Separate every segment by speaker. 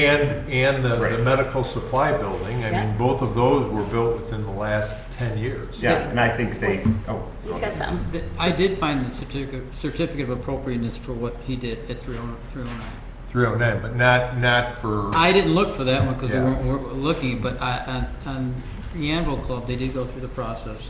Speaker 1: And, and the, the
Speaker 2: Right.
Speaker 1: medical supply building, I
Speaker 3: Yeah.
Speaker 1: mean, both of those were built within the last ten years.
Speaker 2: Yeah, and I think they, oh.
Speaker 3: He's got some.
Speaker 4: I did find the certificate, certificate of appropriateness for what he did at oh, 309. 309.
Speaker 1: Three oh nine, but not, not for,
Speaker 4: I didn't look for that one because
Speaker 1: Yeah.
Speaker 4: we weren't, weren't looking, but I, on, on the Anvil Club, they did go through the process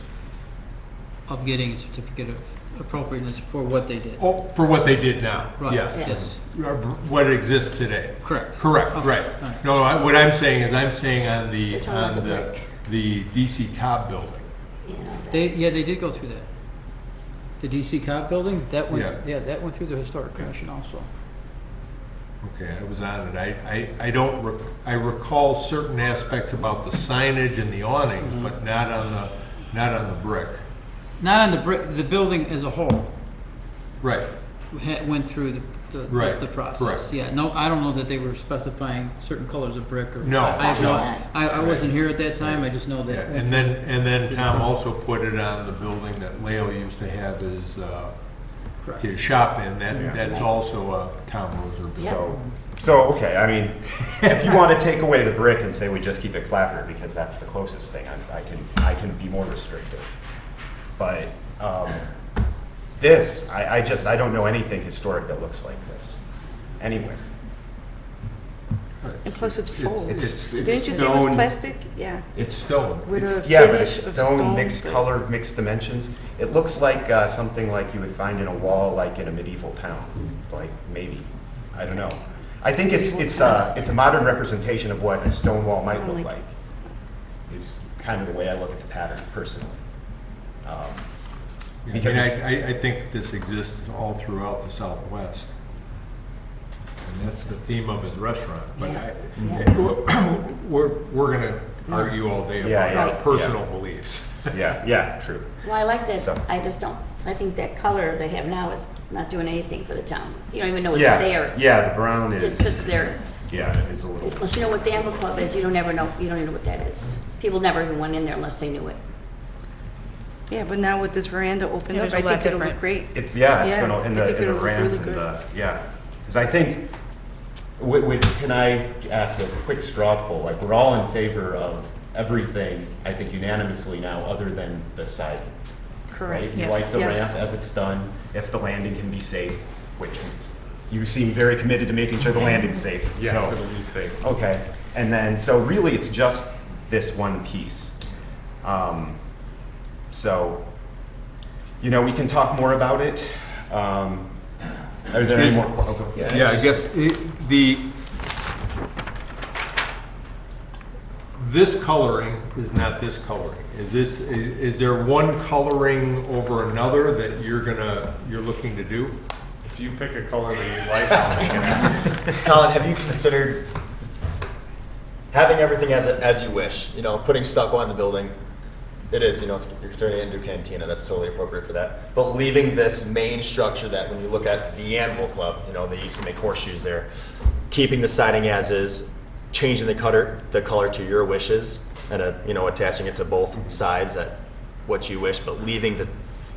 Speaker 4: of getting a certificate of appropriateness for what they did.
Speaker 1: oh, for what they did now,
Speaker 4: Right,
Speaker 1: yes.
Speaker 4: yes,
Speaker 1: Or What exists today.
Speaker 4: correct.
Speaker 1: Correct,
Speaker 4: Okay,
Speaker 1: right.
Speaker 4: all right.
Speaker 1: No, I- what I'm saying is, I'm saying on
Speaker 3: You're
Speaker 1: the,
Speaker 3: talking about
Speaker 1: on
Speaker 3: the
Speaker 1: the,
Speaker 3: brick.
Speaker 1: the DC Cobb building.
Speaker 3: you know, that-
Speaker 4: They, yeah, they did go through that. The DC Cobb building, that
Speaker 1: Yeah.
Speaker 4: went, yeah, that went through the Historic Commission also.
Speaker 1: Okay, I was on it. I, I, I don't, rec- I recall certain aspects about the signage and the awnings,
Speaker 4: Mm-hmm.
Speaker 1: but not on the, not on the brick.
Speaker 4: Not on the brick, the building as a whole
Speaker 1: Right,
Speaker 4: had, went through the, the-
Speaker 1: Right,
Speaker 4: the, the process.
Speaker 1: correct.
Speaker 4: Yeah, no, I don't know that they were specifying certain colors of brick or.
Speaker 1: No,
Speaker 4: I- I have
Speaker 3: no.
Speaker 4: I, I wasn't here at that time, I just know
Speaker 1: yeah.
Speaker 4: that.
Speaker 1: and then, and then Tom also put it on the building that Leo used to have his, uh,
Speaker 4: Correct.
Speaker 1: his shop in, that,
Speaker 2: Yeah.
Speaker 1: that's also a Tom Roser building.
Speaker 2: So, so, okay, I mean, if you want to take away the brick and say we just keep it clapper because that's the closest thing, I'm- I can, I can be more restrictive. But um, this, I, I just, I don't know anything historic that looks like this, anywhere.
Speaker 5: And plus it's
Speaker 1: It's-
Speaker 5: foam.
Speaker 1: it's- it's
Speaker 5: Didn't you say it was
Speaker 1: stone.
Speaker 5: plastic? Yeah.
Speaker 1: It's stone.
Speaker 5: With
Speaker 2: It's,
Speaker 5: a
Speaker 2: yeah, but it's
Speaker 5: finish of
Speaker 2: stone,
Speaker 5: stone,
Speaker 2: mixed
Speaker 5: but-
Speaker 2: color, mixed dimensions. It looks like uh, something like you would find in a wall, like in a medieval town, like maybe, I don't know. I think it's, it's, uh, it's a modern representation of what a stone wall might look like. Is kind of the way I look at the pattern personally. Um,
Speaker 1: I mean,
Speaker 2: Because it's-
Speaker 1: I, I, I think this exists all throughout the Southwest. And that's the theme of his restaurant, but I, we're, we're gonna argue all day
Speaker 2: Yeah,
Speaker 1: about
Speaker 2: yeah,
Speaker 1: our
Speaker 2: yeah.
Speaker 1: personal beliefs.
Speaker 2: Yeah, yeah, true.
Speaker 3: Well, I like that,
Speaker 2: So-
Speaker 3: I just don't, I think that color they have now is not doing anything for the town. You don't even know it's
Speaker 2: Yeah,
Speaker 3: there.
Speaker 2: Yeah, the brown
Speaker 3: It
Speaker 2: is,
Speaker 3: just sits there.
Speaker 2: yeah, it is a little,
Speaker 3: Unless you know what the Anvil Club is, you don't ever know, you don't even know what that is. People never even went in there unless they knew it.
Speaker 5: Yeah, but now with this veranda opened
Speaker 6: Yeah,
Speaker 5: up,
Speaker 6: there's a
Speaker 5: I
Speaker 6: lot
Speaker 5: think it'll look
Speaker 6: different.
Speaker 5: great.
Speaker 2: it's, yeah, it's
Speaker 5: Yeah,
Speaker 2: gonna, in the,
Speaker 5: I think
Speaker 2: in the
Speaker 5: it'll look
Speaker 2: ramp
Speaker 5: really
Speaker 2: and
Speaker 5: good.
Speaker 2: the, yeah. Because I think, wh- which, can I ask a quick straw poll? Like, we're all in favor of everything, I think unanimously now, other than the siding, right?
Speaker 5: Correct.
Speaker 2: You
Speaker 6: Yes.
Speaker 2: like the
Speaker 5: Yes.
Speaker 2: ramp as it's done, if the landing can be safe, which you seem very committed to making sure the landing's safe, so.
Speaker 1: be safe.
Speaker 2: Okay, and then, so really, it's just this one piece. Um, So, you know, we can talk more about it. Um, Are there any
Speaker 1: Is-
Speaker 2: more? oh, go-
Speaker 1: Yeah, I guess it, the, this coloring is not this coloring. Is this, i- is there one coloring over another that you're gonna, you're looking to do?
Speaker 7: If you pick a color that you like,
Speaker 8: Colin, have you considered having everything as, as you wish? You know, putting stucco on the building. It is, you know, it's- you're turning it into a cantina. That's totally appropriate for that. But leaving this main structure that when you look at the Animal Club, you know, they used to make horseshoes there, keeping the siding as is, changing the cutter, the color to your wishes, and, uh you know, attaching it to both sides at what you wish, but leaving the,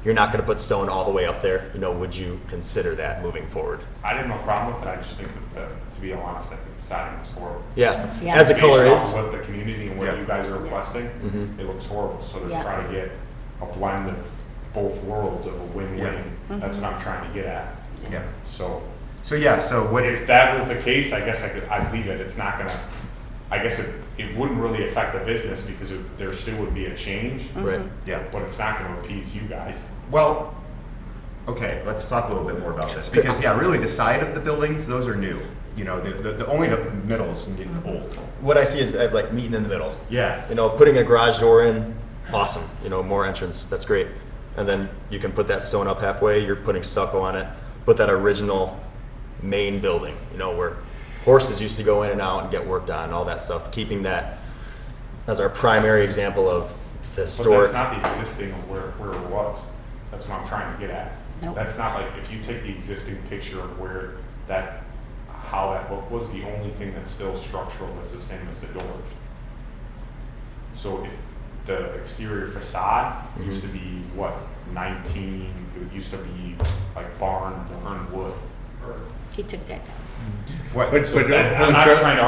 Speaker 8: you're not going to put stone all the way up there. You know, would you consider that moving forward?
Speaker 7: I didn't have a problem with it. I just think that, the, to be honest, I think the siding looks horrible.
Speaker 8: Yeah,
Speaker 3: Yeah.
Speaker 8: as the
Speaker 7: Based
Speaker 8: color
Speaker 7: on
Speaker 8: is.
Speaker 7: What the community and what
Speaker 2: Yeah. Mm-hmm.
Speaker 7: you guys are requesting,
Speaker 8: Mhm.
Speaker 7: it looks horrible. So they're
Speaker 3: Yeah.
Speaker 7: trying to get a blend of both worlds of a win-win.
Speaker 2: Yeah.
Speaker 7: That's what I'm trying to get at.
Speaker 2: Yeah.
Speaker 7: So
Speaker 2: So, yeah, so what,
Speaker 7: if that was the case, I guess I could I'd leave it. It's not gonna. I guess it, it wouldn't really affect the business because it, there still would be a change,
Speaker 8: Right.
Speaker 2: yeah,
Speaker 7: but it's not going to appease you guys.
Speaker 2: well, okay, let's talk a little bit more about this. Because, yeah, really, the side of the buildings, those are new. You know, the, the- the, only the middles and getting old.
Speaker 8: What I see is uh, like meeting in the middle.
Speaker 2: Yeah,
Speaker 8: You know, putting a garage door in, awesome. You know, more entrance, that's great. And then you can put that stone up halfway. You're putting stucco on it. Put that original main building. You know where horses used to go in and out and get worked on, all that stuff. Keeping that as our primary example of the
Speaker 7: But
Speaker 8: historic.
Speaker 7: that's not the existing of where, where it was. That's what I'm trying to get at.
Speaker 3: Nope.
Speaker 7: That's not like, if you take the existing picture of where that, how that look was, the only thing that's still structural is the same as the doors. So if the exterior facade used to be what, nineteen, it used to be like barn, barn wood.
Speaker 3: He took that down.
Speaker 2: what,
Speaker 1: But-
Speaker 7: So
Speaker 1: but-
Speaker 7: that- I'm not trying to